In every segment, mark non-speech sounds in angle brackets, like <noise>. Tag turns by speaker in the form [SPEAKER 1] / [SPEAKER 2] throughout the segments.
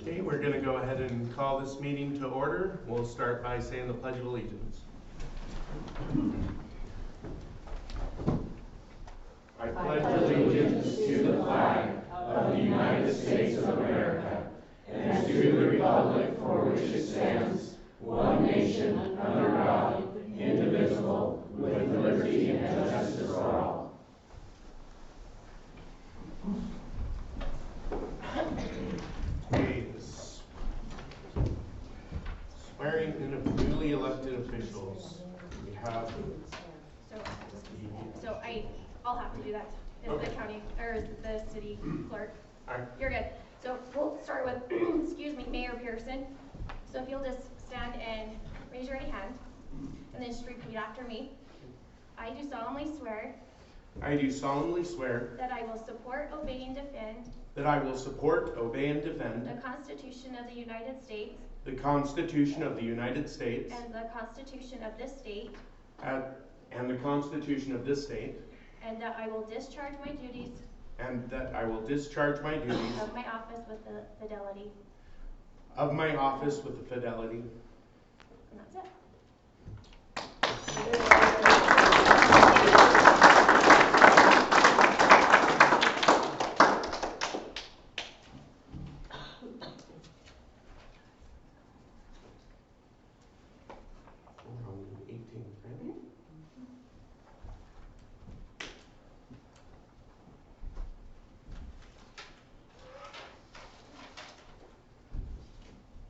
[SPEAKER 1] Okay, we're going to go ahead and call this meeting to order. We'll start by saying the Pledge of Allegiance. I pledge allegiance to the flag
[SPEAKER 2] of the United States of America and to the republic for which it stands, one nation, under God, indivisible, with liberty and justice for all.
[SPEAKER 1] Hayes. Swearing in of newly elected officials. We have,
[SPEAKER 3] So, so I, I'll have to do that, is the
[SPEAKER 1] Okay.
[SPEAKER 3] county, or is the city clerk?
[SPEAKER 1] Alright.
[SPEAKER 3] You're good. So we'll start with, <clears throat> excuse me, Mayor Pearson. So if you'll just stand and raise your right hand, and then just repeat after me. I do solemnly swear
[SPEAKER 1] I do solemnly swear
[SPEAKER 3] that I will support, obey, and defend
[SPEAKER 1] that I will support, obey, and defend
[SPEAKER 3] the Constitution of the United States
[SPEAKER 1] the Constitution of the United States
[SPEAKER 3] and the Constitution of this state,
[SPEAKER 1] at- and the Constitution of this state,
[SPEAKER 3] and that I will discharge my duties
[SPEAKER 1] and that I will discharge my duties
[SPEAKER 3] of my office with fidelity.
[SPEAKER 1] of my office with fidelity.
[SPEAKER 3] And that's it.
[SPEAKER 1] We're on the 18th, right?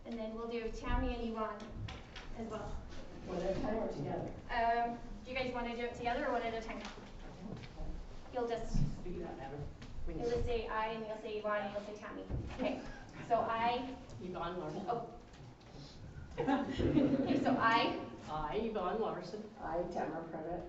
[SPEAKER 3] And then we'll do Tammy and Yvonne as well.
[SPEAKER 2] One at a time or together?
[SPEAKER 3] Um, do you guys want to do it together or one at a time? You'll just,
[SPEAKER 2] Do you not matter? We
[SPEAKER 3] you'll
[SPEAKER 2] need
[SPEAKER 3] just say I and you'll say Yvonne and you'll say Tammy. Okay, so I,
[SPEAKER 2] Yvonne Larson.
[SPEAKER 3] Oh.
[SPEAKER 2] Oh.
[SPEAKER 3] okay, so I
[SPEAKER 2] <laughs> I, Yvonne Larson,
[SPEAKER 4] I, Tamara Prevett,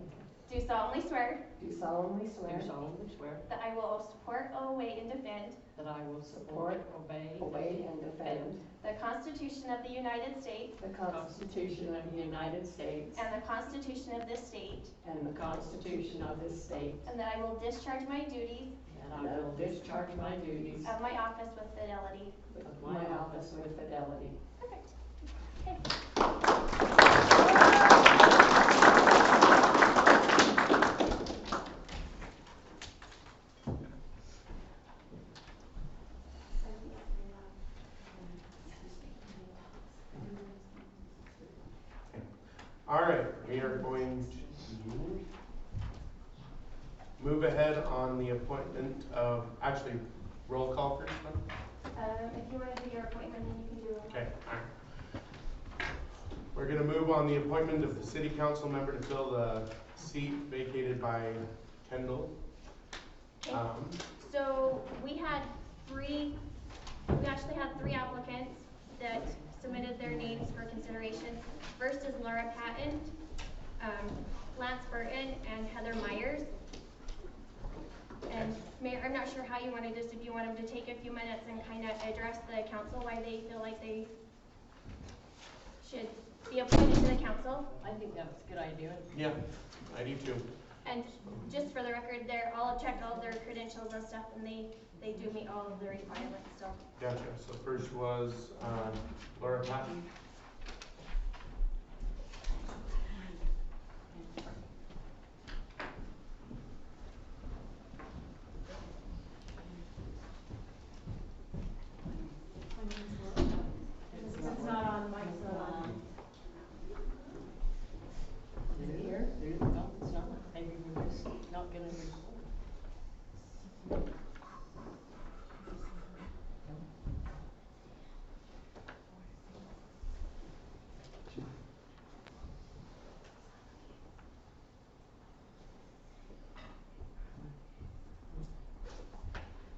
[SPEAKER 3] do solemnly swear
[SPEAKER 4] do solemnly swear,
[SPEAKER 2] do solemnly swear
[SPEAKER 3] that I will support, obey, and defend
[SPEAKER 2] that I will support, obey,
[SPEAKER 4] obey, and defend
[SPEAKER 3] the Constitution of the United States
[SPEAKER 4] the
[SPEAKER 2] the
[SPEAKER 4] Constitution
[SPEAKER 2] Constitution of the United States
[SPEAKER 3] and the Constitution of this state,
[SPEAKER 4] and
[SPEAKER 2] and the Constitution of this state,
[SPEAKER 3] and that I will discharge my duties
[SPEAKER 2] and I will discharge my duties
[SPEAKER 3] of my office with fidelity.
[SPEAKER 2] of my office with fidelity.
[SPEAKER 3] Perfect.
[SPEAKER 1] All right, we are going to move ahead on the appointment of, actually, roll call first, then?
[SPEAKER 3] Um, if you want to do your appointment, then you can do it.
[SPEAKER 1] Okay, all right. We're gonna move on the appointment of the city council member to fill the seat vacated by Kendall.
[SPEAKER 3] Okay.
[SPEAKER 1] Um,
[SPEAKER 3] So we had three, we actually had three applicants that submitted their names for consideration. First is Laura Patton, um, Lance Burton, and Heather Myers. And Mayor, I'm not sure how you wanted this, if you want them to take a few minutes and kind of address the council, why they feel like they should be appointed to the council.
[SPEAKER 2] I think that was a good idea.
[SPEAKER 1] yeah, I do too.
[SPEAKER 3] And just for the record, they're, I'll check all their credentials and stuff, and they, they do meet all of the requirements, so.
[SPEAKER 1] Gotcha, so first was, uh, Laura Patton.
[SPEAKER 2] It's not on, mine's not on. Is it here? There you go, it's not, maybe we're just not gonna record.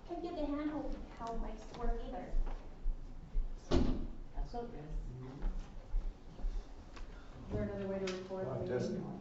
[SPEAKER 3] Can't get the handle how mice work either.
[SPEAKER 2] That's not good.
[SPEAKER 5] Is there another way to record?
[SPEAKER 1] Uh,
[SPEAKER 5] Maybe
[SPEAKER 1] just-
[SPEAKER 5] not.